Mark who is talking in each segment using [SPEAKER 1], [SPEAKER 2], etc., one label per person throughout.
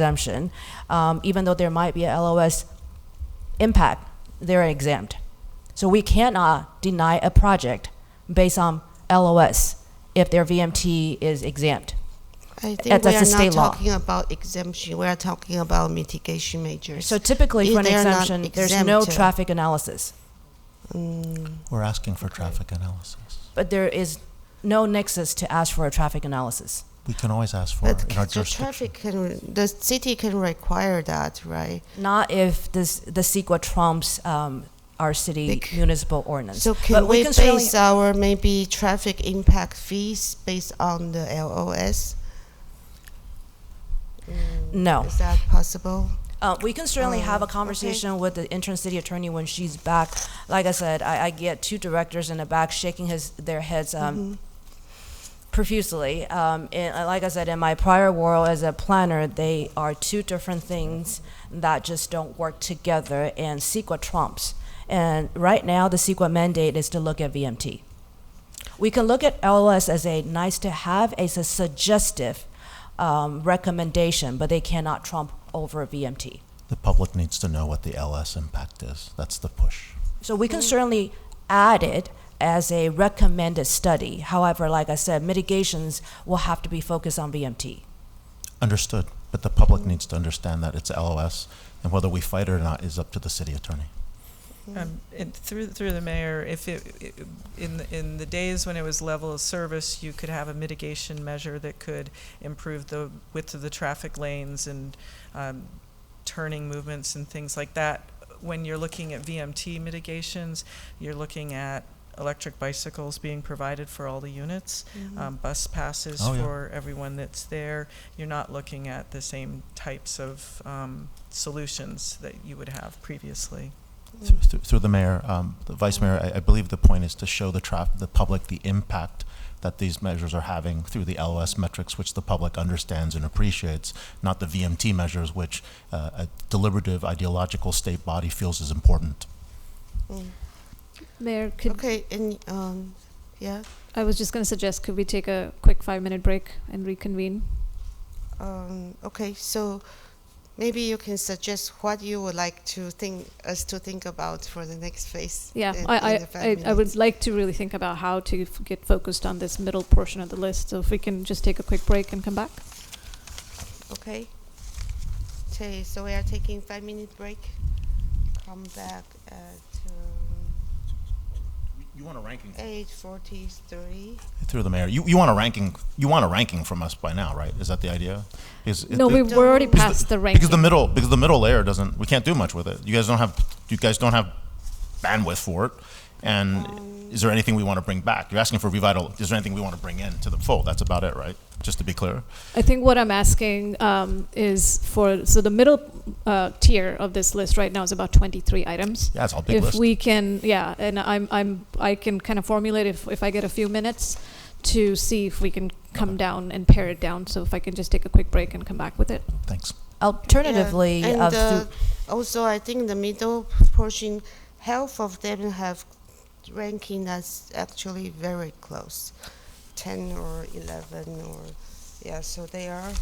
[SPEAKER 1] exemption, um, even though there might be a LOS impact, they're exempt. So we cannot deny a project based on LOS if their VMT is exempt.
[SPEAKER 2] I
[SPEAKER 1] That's
[SPEAKER 2] think we
[SPEAKER 1] a
[SPEAKER 2] are
[SPEAKER 1] state
[SPEAKER 2] not
[SPEAKER 1] law.
[SPEAKER 2] talking about exemption, we are talking about mitigation measures.
[SPEAKER 1] So typically for an
[SPEAKER 2] If they are not
[SPEAKER 1] exemption, there's no
[SPEAKER 2] exempt.
[SPEAKER 1] traffic analysis,
[SPEAKER 3] We're asking for traffic analysis.
[SPEAKER 1] but there is no nexus to ask for a traffic analysis.
[SPEAKER 3] We can always ask for
[SPEAKER 2] But
[SPEAKER 3] it in our
[SPEAKER 2] the
[SPEAKER 3] jurisdiction.
[SPEAKER 2] traffic can, the city can require that, right?
[SPEAKER 1] Not if this, the CEQA trumps um, our city
[SPEAKER 2] Bec-
[SPEAKER 1] municipal ordinance.
[SPEAKER 2] So
[SPEAKER 1] But
[SPEAKER 2] can
[SPEAKER 1] we
[SPEAKER 2] we
[SPEAKER 1] can certainly-
[SPEAKER 2] base our maybe traffic impact fees based on the LOS?
[SPEAKER 1] No.
[SPEAKER 2] Is that possible?
[SPEAKER 1] Uh, we can certainly have a
[SPEAKER 2] Oh, okay.
[SPEAKER 1] conversation with the interim city attorney when she's back. Like I said, I, I get two directors in the back shaking his their heads um,
[SPEAKER 2] Mm-hmm.
[SPEAKER 1] profusely. Um, and uh, like I said, in my prior world as a planner, they are two different things that just don't work together. And CEQA trumps. And right now, the CEQA mandate is to look at VMT. We can look at LOS as a nice to have, as a suggestive um, recommendation, but they cannot trump over VMT.
[SPEAKER 3] The public needs to know what the LS impact is. That's the push.
[SPEAKER 1] So we can certainly add it as a recommended study. However, like I said, mitigations will have to be focused on VMT.
[SPEAKER 3] Understood. But the public
[SPEAKER 2] Mm-hmm.
[SPEAKER 3] needs to understand that it's LOS, and whether we fight it or not is up to the city attorney.
[SPEAKER 4] Um, and through, through the mayor, if it, it- in, the- in the days when it was level of service, you could have a mitigation measure that could improve the width of the traffic lanes and, um, turning movements and things like that. When you're looking at VMT mitigations, you're looking at electric bicycles being provided for all the units,
[SPEAKER 2] Mm-hmm.
[SPEAKER 1] Mm-hmm.
[SPEAKER 4] um, bus passes
[SPEAKER 3] Oh, yeah.
[SPEAKER 4] for everyone that's there. You're not looking at the same types of, um, solutions that you would have previously.
[SPEAKER 2] Mm-hmm.
[SPEAKER 3] Through- Through through the mayor, um, the vice mayor, I, I believe the point is to show the traf, the public the impact that these measures are having through the LOS metrics, which the public understands and appreciates, not the VMT measures, which uh, a deliberative ideological state body feels is important.
[SPEAKER 5] Mayor, could,
[SPEAKER 2] Mm. Okay, and, um, yeah,
[SPEAKER 5] I was just going to suggest, could we take a quick five-minute break and reconvene?
[SPEAKER 2] um, okay, so maybe you can suggest what you would like to think, us to think about for the next phase.
[SPEAKER 5] Yeah,
[SPEAKER 2] in-
[SPEAKER 5] I,
[SPEAKER 2] in the
[SPEAKER 5] I,
[SPEAKER 2] five
[SPEAKER 5] I, I
[SPEAKER 2] minutes.
[SPEAKER 5] would like to really think about how to f- get focused on this middle portion of the list. So if we can just take a quick break and come back.
[SPEAKER 2] Okay. Okay, so we are taking five minute break. Come back at um,
[SPEAKER 3] You want a ranking?
[SPEAKER 2] eight forty three.
[SPEAKER 3] Through the mayor, you, you want a ranking, you want a ranking from us by now, right? Is that the idea? Because it-
[SPEAKER 5] No,
[SPEAKER 3] it-
[SPEAKER 5] we were already
[SPEAKER 2] Because
[SPEAKER 5] past the ranking.
[SPEAKER 3] Because the middle, because the middle layer doesn't, we can't do much with it. You guys don't have, you guys don't have bandwidth for it. And is there anything we want to bring back? You're asking for revital, is there anything we want to bring in to the fold? That's about it, right? Just to be clear.
[SPEAKER 5] I think what I'm asking um, is for, so the middle uh, tier of this list right now is about 23 items.
[SPEAKER 3] Yeah, it's all big
[SPEAKER 5] If
[SPEAKER 3] list.
[SPEAKER 5] we can, yeah, and I'm, I'm, I can kind of formulate if, if I get a few minutes to see if we can come down and pare it down. So if I can just take a quick break and come back with it.
[SPEAKER 3] Thanks.
[SPEAKER 1] Alternatively,
[SPEAKER 2] and
[SPEAKER 1] of
[SPEAKER 2] uh,
[SPEAKER 1] through-
[SPEAKER 2] also I think the middle portion, half of them have ranking that's actually very close, ten or eleven or yeah. So they are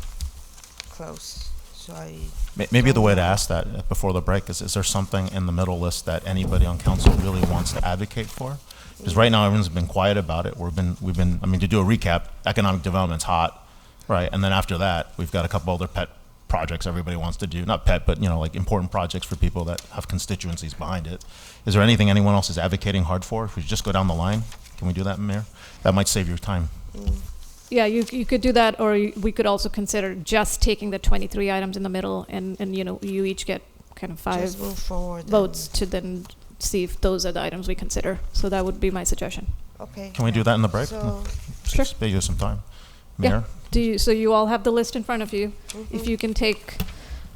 [SPEAKER 2] close. So I
[SPEAKER 3] May- Maybe the way to ask that uh, before the break is, is there something in the middle list that anybody on council really wants to advocate for? Because right now, everyone's been quiet about it. We've been, we've been, I mean, to do a recap, economic development's hot, right? And then after that, we've got a couple other pet projects everybody wants to do. Not pet, but, you know, like important projects for people that have constituencies behind it. Is there anything anyone else is advocating hard for? If we just go down the line, can we do that, Mayor? That might save your time.
[SPEAKER 2] mm,
[SPEAKER 5] Yeah, you, you could do that, or you- we could also consider just taking the 23 items in the middle and, and you know, you each get kind of five
[SPEAKER 2] just move forward. and-
[SPEAKER 5] votes to then see if those are the items we consider. So that would be my suggestion.
[SPEAKER 2] Okay.
[SPEAKER 3] Can we do that in the break?
[SPEAKER 2] So
[SPEAKER 5] Sure.
[SPEAKER 3] Spare you some time.
[SPEAKER 5] Yeah.
[SPEAKER 3] Mayor?
[SPEAKER 5] Do you, so you all have the list in front of you.
[SPEAKER 2] mm-hmm.
[SPEAKER 5] If you can take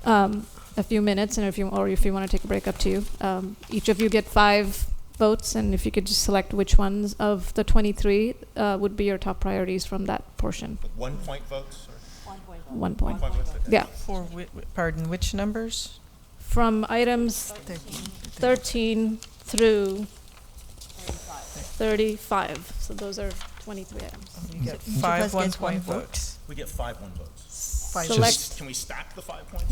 [SPEAKER 5] um, a few minutes, and if you or if you want to take a break, up to you. Um, each of you get five votes, and if you could just select which ones of the 23 uh, would be your top priorities from that portion.
[SPEAKER 3] One point votes?
[SPEAKER 5] One point. Yeah,
[SPEAKER 4] For, whi- whi- pardon, which numbers?
[SPEAKER 5] from items 13 through 35. So those are 23 items.
[SPEAKER 4] You
[SPEAKER 6] Each
[SPEAKER 4] get
[SPEAKER 6] of
[SPEAKER 4] five
[SPEAKER 6] us gets one
[SPEAKER 4] one-point
[SPEAKER 6] vote.
[SPEAKER 4] votes.
[SPEAKER 3] We get five one votes. Five
[SPEAKER 7] Select-
[SPEAKER 3] Can we stack the five points?